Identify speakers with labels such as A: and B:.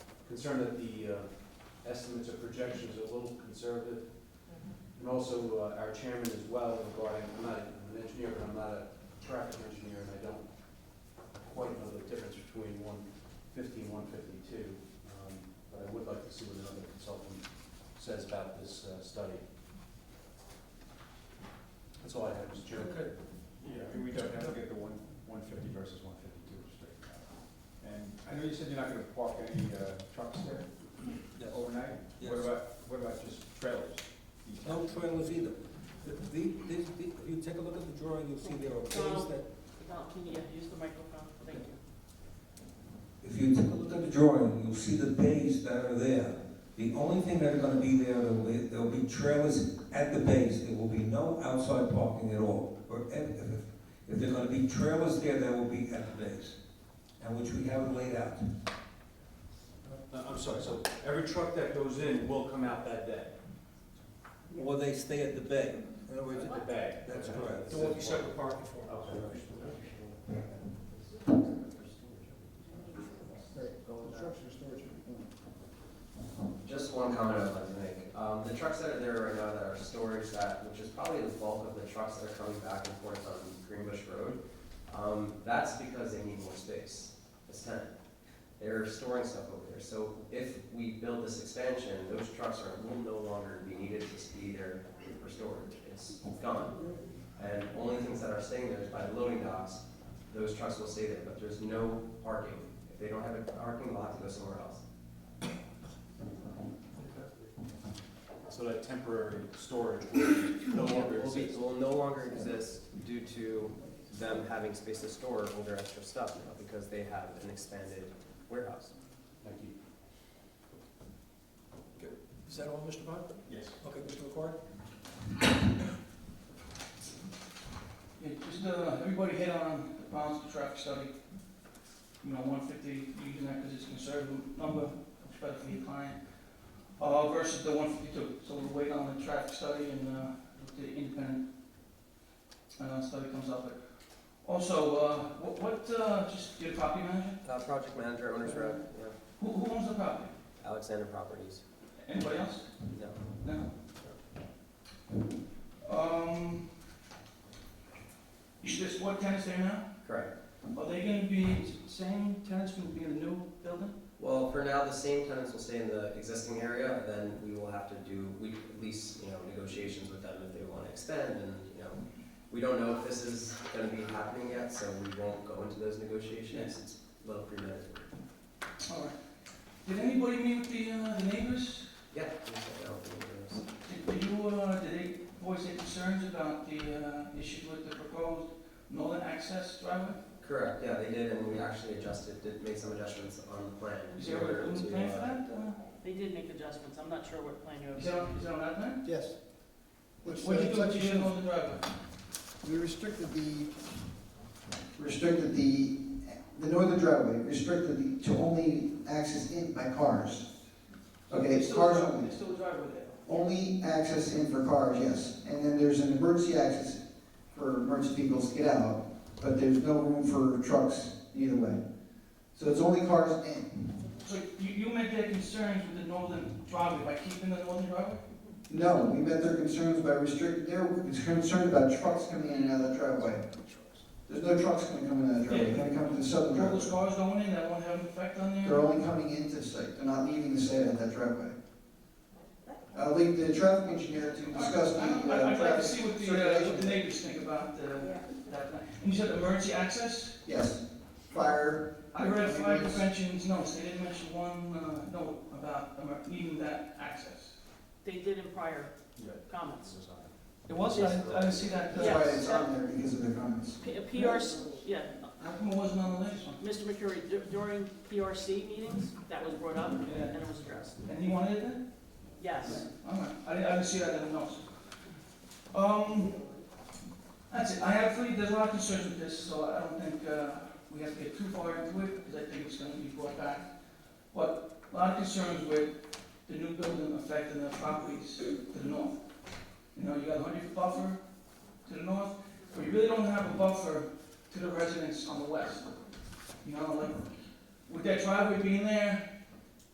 A: concerned that the uh, estimates or projections are a little conservative. And also, uh, our chairman as well regarding, I'm not an engineer, but I'm not a traffic engineer, and I don't quite know the difference between 150 and 152. um, But I would like to see what another consultant says about this uh, study. That's all I have, Mr. Chairman.
B: Okay. Yeah, I mean, we don't have to get the one, one fifty versus one fifty-two straight now. And I know you said you're not gonna park any uh, trucks there overnight?
C: Yes.
B: What about, what about just trailers?
C: No trailers either. The- the- this- the- if you take a look at the drawing, you'll see there are things that,
D: Donald, can you use the microphone? Thank you.
E: If you take a look at the drawing, you'll see the bays that are there. The only thing that are gonna be there, there'll be, there'll be trailers at the bays, there will be no outside parking at all. Or if, if, if there're gonna be trailers there, they will be at the bays, and which we haven't laid out.
A: No, I'm sorry, so every truck that goes in will come out that day?
C: or they stay at the bay. In other words,
A: The bag?
C: That's correct.
A: There won't be separate
B: parking
A: Okay.
B: Construction storage.
F: Just one comment I'd like to make. Um, the trucks that are there right now that are storage that, which is probably the bulk of the trucks that are coming back and forth on Greenbush Road, um, that's because they need more space. It's tenant. They're storing stuff over there. So if we build this expansion, those trucks are, will no longer be needed to just be there for storage. It's gone. And only things that are staying there is by loading docks, those trucks will stay there, but there's no parking. If they don't have a parking lot, they go somewhere else.
A: So that temporary storage will no longer
F: will be,
A: exist?
F: will no longer exist due to them having space to store all their extra stuff now because they have an expanded warehouse.
A: Thank you.
C: Is that all, Mr. Bott?
B: Yes.
C: Okay, Mr. McCord?
G: Yeah, just, uh, everybody hit on the balance of traffic study, you know, one fifty, using that because it's a conservative number, especially for your client, uh, versus the one fifty-two, so we'll wait on the traffic study and, uh, if the independent, uh, study comes up. Also, uh, what, what, uh, just your property manager,
F: Uh, project manager, owner's rep, yeah,
G: who, who owns the property?
F: Alexander Properties,
G: Anybody else?
F: no.
G: No. Um, you just, what tenants there now?
F: Correct.
G: Are they gonna be, same tenants will be in the new building?
F: Well, for now, the same tenants will stay in the existing area, then we will have to do, we, at least, you know, negotiations with them if they wanna extend and, you know, we don't know if this is gonna be happening yet, so we won't go into those negotiations, it's a little premeditated.
G: All right. Did anybody meet with the, uh, the neighbors?
F: Yeah. I don't think there's-
G: Did- Did you, uh, did they voice their concerns about the, uh, issues with the proposed northern access driveway?
F: Correct, yeah, they did, and we actually adjusted, did, made some adjustments on the plan.
G: Is there a room plan for that? Uh,
D: They did make adjustments. I'm not sure what plan you
G: Is that,
D: have.
G: on- is that on that plan?
H: Yes. It's,
G: What
H: uh,
G: did you do with
H: it's
G: the
H: like
G: issue
H: you
G: of the driveway?
H: should- We restricted the, restricted the, the northern driveway, restricted the, to only access in by cars. Okay,
G: There's
H: it's
G: still a
H: cars
G: driveway-
H: only.
G: There's still a driveway there.
H: Only access in for cars, yes. And then there's an emergency access for emergency vehicles to get out, but there's no room for trucks either way. So it's only cars in.
G: So you, you met their concerns with the northern driveway by keeping the northern driveway?
H: No, we met their concerns by restricting, they were concerned about trucks coming in and out of that driveway. There's no trucks gonna come in that driveway, they're gonna come to the southern
G: All
H: driveway.
G: those cars going in, that won't have an effect on there?
H: They're only coming into the site, they're not leaving the site at that driveway. I'll leave the traffic engineer to discuss the,
G: I- I-
H: uh,
G: I'd like to
H: traffic.
G: see what the, uh,
H: circulation.
G: what the neighbors think about uh, that. And you said emergency access?
H: Yes, fire.
G: I read fire
H: ambulance.
G: prevention's notes, they didn't mention one uh, note about emer- needing that access.
D: They did in prior
B: Yeah.
D: comments.
G: It was, I didn't, I didn't see that. uh,
H: That's why it's on there, because of the comments.
D: P- uh, PRC, yeah,
G: How come it wasn't on the last one?
D: Mr. McCurry, dur- during PRC meetings, that was brought up and it was addressed.
G: And he wanted it then?
D: Yes.
G: All right, I didn't, I didn't see that in the notes. Um, that's it, I have three, there's a lot of concerns with this, so I don't think, uh, we have to get too far into it, because I think it's gonna be brought back. But a lot of concerns with the new building affecting the properties to the north. You know, you got a hundred foot buffer to the north, but you really don't have a buffer to the residents on the west. You know, like, with that driveway being there,